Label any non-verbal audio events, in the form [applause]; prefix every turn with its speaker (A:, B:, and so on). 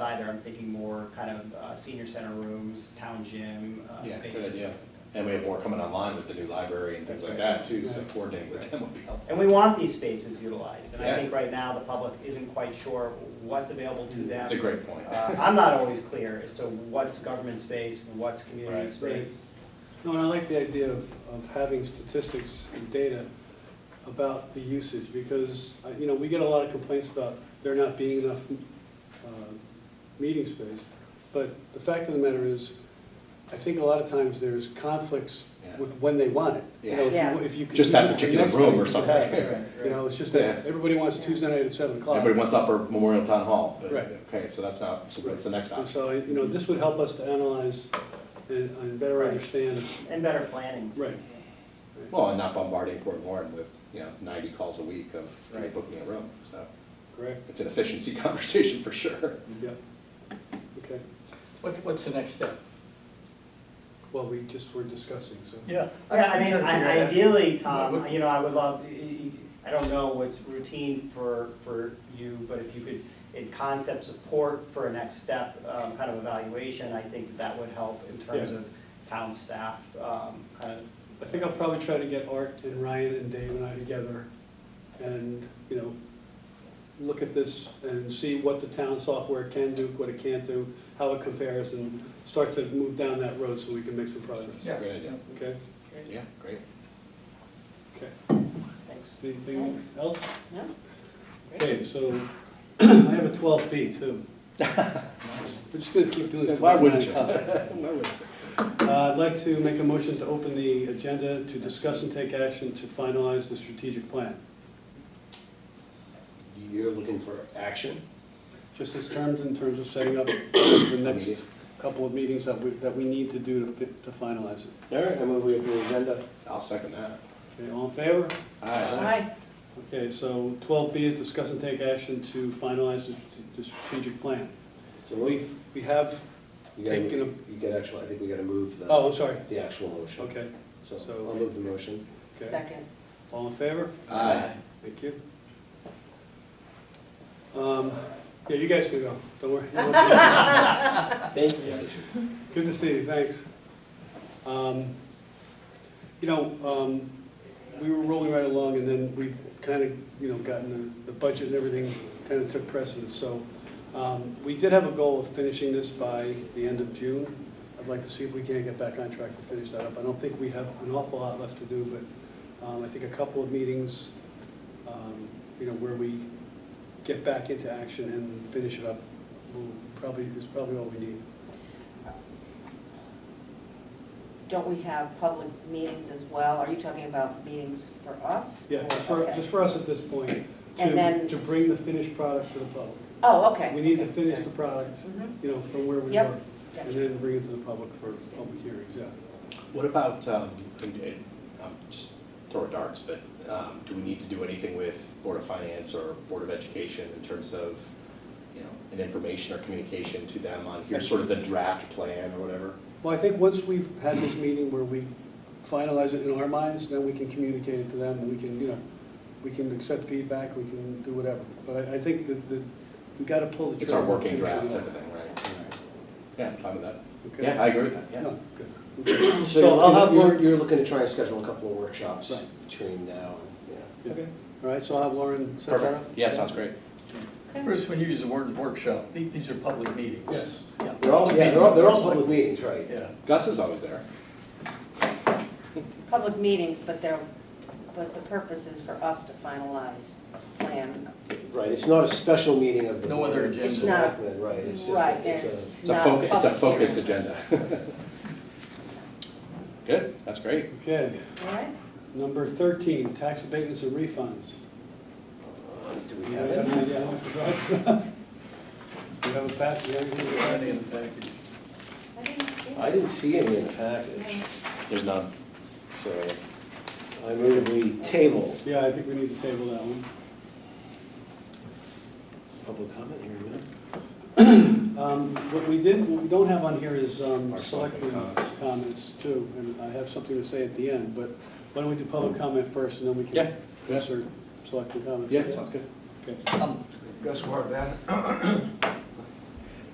A: either. I'm thinking more kind of uh, senior center rooms, town gym, uh,
B: Yeah,
A: spaces.
B: good,
A: stuff
B: yeah.
A: like that.
B: And we have more coming online with the new library and things like that too, so coordinating with them would be helpful.
A: And we want these spaces utilized, and I
B: Yeah.
A: think right now the public isn't quite sure what's available to them.
B: It's a great point.
A: Uh, I'm not always clear as to what's government space, what's community
B: Right.
A: space.
C: No, and I like the idea of, of having statistics and data about the usage, because, uh, you know, we get a lot of complaints about there not being enough uh, meeting space, but the fact of the matter is, I think a lot of times there's conflicts
B: Yeah.
C: with when they want it. You know, if you-
D: Yeah.
C: if you could
B: Just
C: use
B: that
C: it for
B: particular
C: next
B: room
C: night,
B: or
C: you could
B: something.
C: have it.
A: Right,
B: [laughs]
A: right.
C: You know, it's just
B: Yeah.
C: that, everybody wants Tuesday night at seven
B: [laughs]
C: o'clock.
B: Everybody wants upper Memorial Town Hall, but,
C: Right.
B: okay, so that's not, so that's the next
C: And
B: option.
C: so, you know, this would help us to analyze and, and better
A: Right.
C: understand,
A: And better planning.
C: right.
B: Well, and not bombarding Port Warren with, you know, ninety calls a week of "Can you
A: Right.
B: book me a room, so
C: Correct,
B: it's an efficiency [laughs] conversation for sure.
C: yeah, okay.
E: What, what's the next step?
C: Well, we just were discussing, so.
E: Yeah.
A: Yeah, I mean, I- ideally, Tom,
E: What-
A: you know, I would love, I don't know what's routine for, for you, but if you could, in concept support for a next step, um, kind of evaluation, I think that would help in terms
C: Yeah.
A: of town staff, um, kind of.
C: I think I'll probably try to get Art and Ryan and Dave and I together and, you know, look at this and see what the town software can do, what it can't do, how it compares, and start to move down that road so we can make some progress.
B: Yeah. Great idea.
C: Okay?
B: Yeah, great.
C: Okay.
A: Thanks.
C: Anything
D: Thanks.
C: else?
D: No?
C: Okay, so [clears throat] I have a twelve
B: [laughs]
C: B too. We're just gonna keep doing this. till
B: Why wouldn't you?
C: midnight. Uh, I'd like to make a motion to open the agenda to discuss and take action to finalize the strategic plan.
F: You're looking for action?
C: Just as terms, in terms of setting up the next couple of meetings that we, that we need to do to fi- to finalize it.
F: All right, I move we have the agenda.
B: I'll second that.
C: Okay, all in favor?
B: Aye.
D: Aye.
C: Okay, so twelve B is discuss and take action to finalize the strate- the strategic plan.
F: So
C: We,
F: we,
C: we have
F: you gotta,
C: Taking
F: move- you get actual, I think we gotta move the.
C: Oh, I'm sorry.
F: The actual motion.
C: Okay,
F: So
C: So-
F: I'll move the motion.
C: okay.
D: Second.
C: All in favor?
B: Aye.
C: Thank you. Um, Yeah, you guys can go, don't worry.
F: Thank you.
C: Good to see you, thanks. Um, You know, um, we were rolling right along, and then we kind of, you know, gotten the the budget and everything kind of took precedence, so um, we did have a goal of finishing this by the end of June. I'd like to see if we can get back on track to finish that up. I don't think we have an awful lot left to do, but um, I think a couple of meetings, um, you know, where we get back into action and finish it up, will probably, is probably all we need.
D: Don't we have public meetings as well? Are you talking about meetings for us?
C: Yeah,
D: or-
C: just for,
D: okay.
C: just for us at this point,
D: And
C: to,
D: then-
C: to bring the finished product to the public.
D: Oh, okay.
C: We need to
D: okay,
C: finish
D: sorry.
C: the product,
D: Mhm.
C: you know, from where we
D: Yep.
C: were, and
D: Gotcha.
C: then bring it to the public for public hearings, yeah.
B: What about, um, and- and, um, just throw darts, but, um, do we need to do anything with Board of Finance or Board of Education in terms of, you know, an information or communication to them on, here's sort of the draft plan or whatever?
C: Well, I think once we've had this meeting where we finalize it in our minds, then we can communicate it to them, and we can, you know, we can accept feedback, we can do whatever. But I, I think that, that we gotta pull the trigger.
B: It's our
C: and
B: working
C: finish it
B: draft
C: up.
B: type of thing, right? Yeah, I'm fine with that.
C: Okay?
B: Yeah, I agree with that, yeah.
C: No, good. Okay.
F: So
C: So
F: you're
C: I'll
F: looking-
C: have
F: you're,
C: Lauren-
F: you're looking to try and schedule a couple of workshops
C: Right.
F: between now and, yeah.
C: Yeah. All right, so I'll have Lauren set that up?
B: Perfect, yeah, sounds great.
E: Bruce, when you use the word workshop, the- these are public meetings.
C: Yes.
E: Yeah.
F: They're all, yeah, they're all, they're all public meetings, right?
E: Yeah.
B: Gus is always there.
D: Public meetings, but they're, but the purpose is for us to finalize plan.
F: Right, it's not a special meeting of the.
E: No other
F: Board of
E: agenda.
D: It's not-
F: Selectmen, Right, it's just.
D: Right,
F: that it's a-
D: it's
B: It's a
D: not.
B: focus, it's a
D: public
B: focused
D: hearing.
B: agenda. [laughs] Good, that's great.
C: Okay.
D: All right.
C: Number 13, tax abatements and refunds.
F: Uh, Do
C: Do
F: we
C: you
F: have
C: have
F: it?
C: an idea how much we got? Do [laughs] you have a pass, do you have anything? to add?
E: Already in the package.
D: I didn't see
F: I
D: that.
F: didn't see any in the package,
D: No.
B: There's none.
F: so I move we table.
C: Yeah, I think we need to table that one.
F: Public comment here, man.
C: Um, What we did, what we don't have on here is um,
B: Our
C: selectmen
B: comments.
C: comments too, and I have something to say at the end, but why don't we do public comment first and then we
B: Yeah,
C: can
B: yeah.
C: insert selectmen comments?
B: Yeah, sounds good.
C: Okay.
E: Gus Ward,